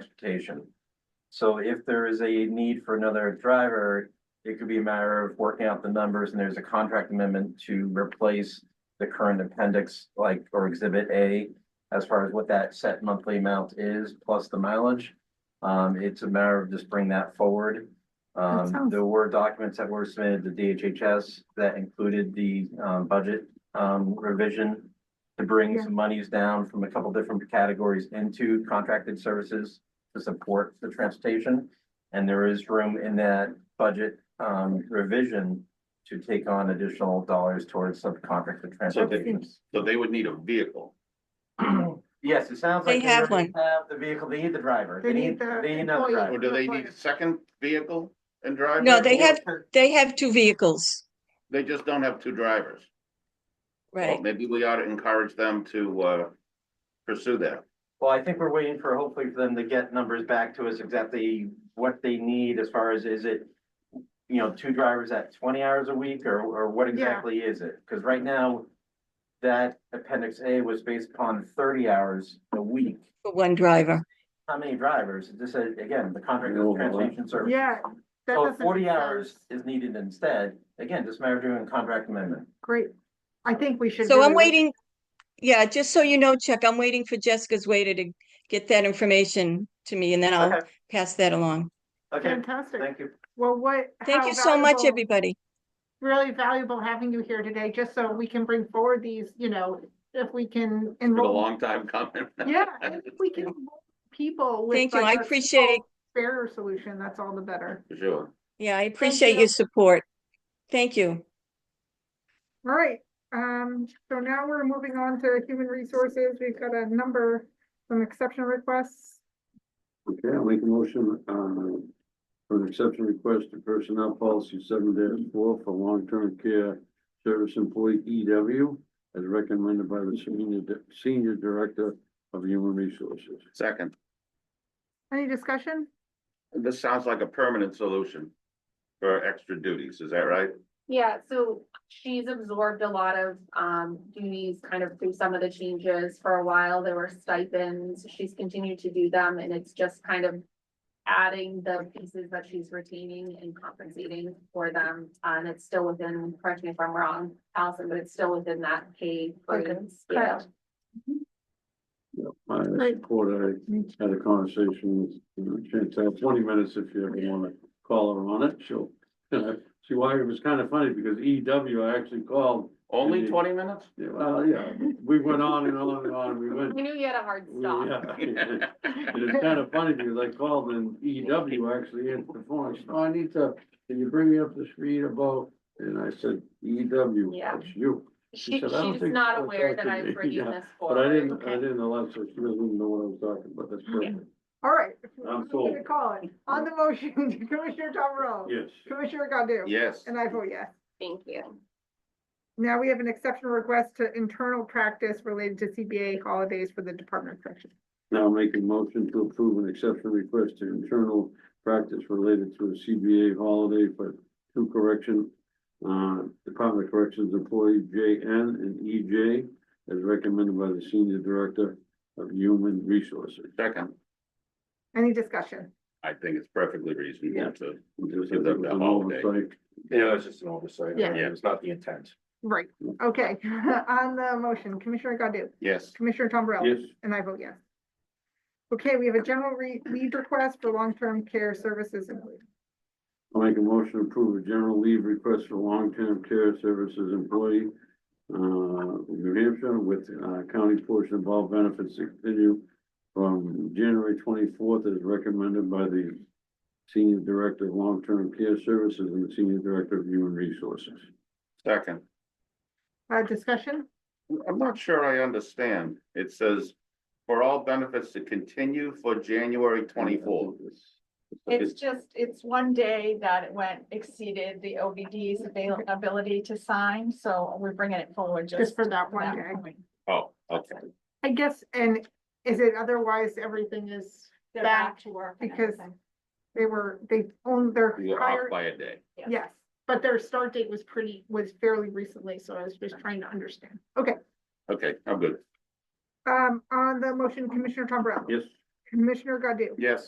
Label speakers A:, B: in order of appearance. A: transportation. So if there is a need for another driver, it could be a matter of working out the numbers and there's a contract amendment to replace the current appendix, like, or exhibit A, as far as what that set monthly amount is, plus the mileage. Um, it's a matter of just bring that forward.
B: That
A: Um,
B: sounds-
A: there were documents that were submitted to DHHS that included the, um, budget, um, revision to bring
B: Yeah.
A: some monies down from a couple different categories into contracted services to support the transportation. And there is room in that budget, um, revision to take on additional dollars towards subcontracted transportation.
C: So they would need a vehicle.
A: Yes, it sounds
D: They
A: like.
D: have
A: already Have the vehicle, they need the driver.
B: They need the
A: They need another
B: employee.
C: Or
A: driver.
C: do they need a second vehicle and driver?
D: No, they have,
B: Or-
D: they have two vehicles,
C: They just don't have two drivers. Well,
D: right?
C: Maybe we ought to encourage them to uh pursue that.
A: Well, I think we're waiting for, hopefully for them to get numbers back to us exactly what they need as far as, is it, you know, two drivers at twenty hours a week or, or what exactly is it? Because right now, that appendix A was based upon thirty hours a week.
D: For one driver.
A: How many drivers? This is, again, the contract
C: No,
A: of
C: no.
A: transportation service.
B: Yeah. that
A: So
C: Oh,
B: doesn't
A: forty
B: make sense.
A: hours is needed instead. Again, just matter of doing a contract amendment.
B: Great. I think we should.
D: So I'm
B: really-
D: waiting, yeah, just so you know, Chuck, I'm waiting for Jessica's waiter to get that information to me and then I'll
A: Okay.
D: pass that along.
A: Okay,
B: Fantastic.
A: thank you.
B: Well, what?
D: Thank
B: how
D: you so much,
B: valuable-
D: everybody.
B: Really valuable having you here today, just so we can bring forward these, you know, if we can
C: It's been a
B: enroll.
C: long time coming.
B: Yeah, and if we can enroll people with.
D: Thank you.
B: like,
D: I
B: a
D: appreciate-
B: simple, Fairer solution, that's all the better.
C: For Sure.
D: Yeah, I appreciate
B: you.
D: your support. Thank you.
B: All right, um, so now we're moving on to human resources. We've got a number, some exception requests.
E: Okay, I'll make a motion, uh, for an exception request to personnel policy seven four for long-term care service employee EW as recommended by the senior, di- senior director of human resources.
C: Second,
B: Any discussion?
C: this sounds like a permanent solution for extra duties, is that right?
F: Yeah, so she's absorbed a lot of um duties kind of through some of the changes for a while. There were stipends. She's continued to do them and it's just kind of. Adding the pieces that she's retaining and compensating for them. uh, And it's still within, correct me if I'm wrong, Allison, but it's still within that pay grade scale.
E: Yeah, I support, I had a conversation with Chantel, twenty minutes if you ever wanna call her on it, she'll. See why it was kind of funny because EW, I actually called,
C: Only twenty minutes?
E: yeah, well, yeah, we went on and on and on, we went
F: We knew you had a hard
E: We-
F: stop.
E: yeah. And it's kind of funny because I called and EW actually answered the phone. I said, oh, I need to, can you bring me up to speed about? And I said, EW,
F: Yeah.
E: that's you.
F: She
E: said,
F: she's
E: "I don't think
F: not
E: so,
F: aware that
E: Dr.
F: I'm bringing
E: Yeah,
F: this
E: But I
F: forward.
E: didn't, I didn't allow, so she doesn't even know what I was talking about. That's perfect.
B: All right.
E: I'm
B: I'm
E: sold.
B: gonna Call it. On the motion, Commissioner Tom Rowe.
E: Yes.
B: Commissioner Godu.
C: Yes,
B: And I vote yes.
F: Thank you.
B: Now we have an exceptional request to internal practice related to CBA holidays for the Department of Corrections.
E: Now make a motion to approve an exception request to internal practice related to a CBA holiday for two correction, uh, Department of Corrections employee JN and EJ as recommended by the Senior Director of Human Resources.
C: second,
B: Any discussion?
C: I think it's perfectly reasonable
E: Yeah.
C: to,
E: Just
C: Give
E: as it
C: them
E: was
C: the
E: an
C: holiday.
E: oversight.
G: Yeah, it's just an oversight.
B: Yeah.
G: It's not the intent.
B: Right, okay. On the motion, Commissioner Godu,
C: yes,
B: Commissioner Tom Burrell.
E: Yes,
B: And I vote yes. Okay, we have a general re- leave request for long-term care services. employees.
E: I'll make a motion to approve a general leave request for long-term care services employee. Uh, New Hampshire with, uh, county portion of all benefits to continue from January twenty-fourth as recommended by the Senior Director of Long-Term Care Services and the Senior Director of Human Resources.
C: second.
B: Uh, discussion?
C: I'm not sure I understand. It says for all benefits to continue for January twenty-four.
H: It's just, it's one day that it went exceeded the OBD's availability to sign, so we're bringing it forward just.
B: Just for that one day.
H: point.
C: Oh, okay.
B: I guess, and is it otherwise everything is,
H: They're back to work. and
B: Because-
H: everything.
B: they were, they owned their
C: You're
B: prior,
C: off by a day.
H: Yes.
B: yes. But their start date was pretty, was fairly recently, so I was just trying to understand. Okay,
C: Okay, I'm good.
B: um, on the motion, Commissioner Tom Burrell.
E: Yes,
I: Commissioner Godu?
B: Yes.